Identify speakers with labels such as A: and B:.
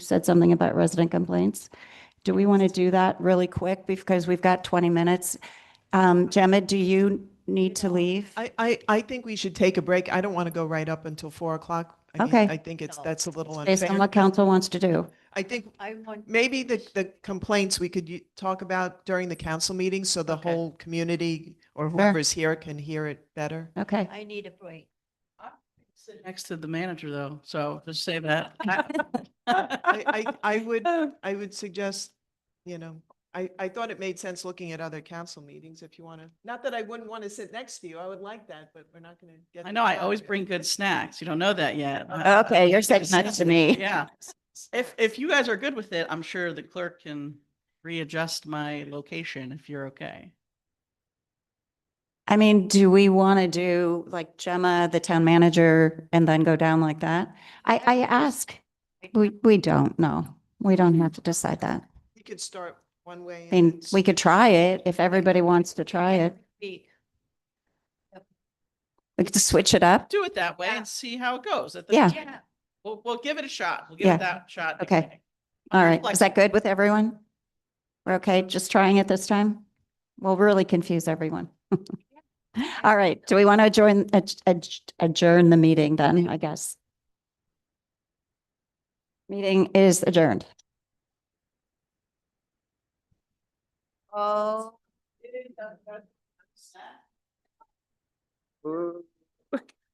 A: said something about resident complaints. Do we want to do that really quick because we've got 20 minutes? Um, Gemma, do you need to leave?
B: I, I, I think we should take a break. I don't want to go right up until four o'clock. I mean,
A: Okay.
B: I think it's, that's a little
A: Based on
B: unfair.
A: what council wants to do.
B: I think
C: I want,
B: maybe the, the complaints we could u- talk about during the council meeting so the whole community or whoever's here can hear it better.
A: Okay.
C: I need a break.
D: Sit Next to the manager though, so just say that. I-
B: I, I, I would, I would suggest, you know, I, I thought it made sense looking at other council meetings if you want to, not that I wouldn't want to sit next to you. I would like that, but we're not going to get.
D: I
B: the
D: know, I
B: time.
D: always bring good snacks. You don't know that yet.
A: Okay, you're saying that to me.
D: Yeah. If, if you guys are good with it, I'm sure the clerk can readjust my location if you're okay.
A: I mean, do we want to do like Gemma, the town manager, and then go down like that? I, I ask. We, we don't, no. We don't have to decide that.
B: You could start one way.
A: I mean, we could try it if everybody wants to try it.
C: Be-
A: We could switch it up.
D: Do it that way
C: Yeah.
D: and see how it goes. At the-
A: Yeah.
C: Yeah,
D: We'll, we'll give it a shot. We'll give
A: Yeah.
D: it that shot.
A: Okay.
D: anyway.
A: All right,
D: Like-
A: is that good with everyone? We're okay, just trying it this time? We'll really confuse everyone. All right, do we want to adjourn, adj- adj- adjourn the meeting then, I guess? Meeting is adjourned.
C: oh.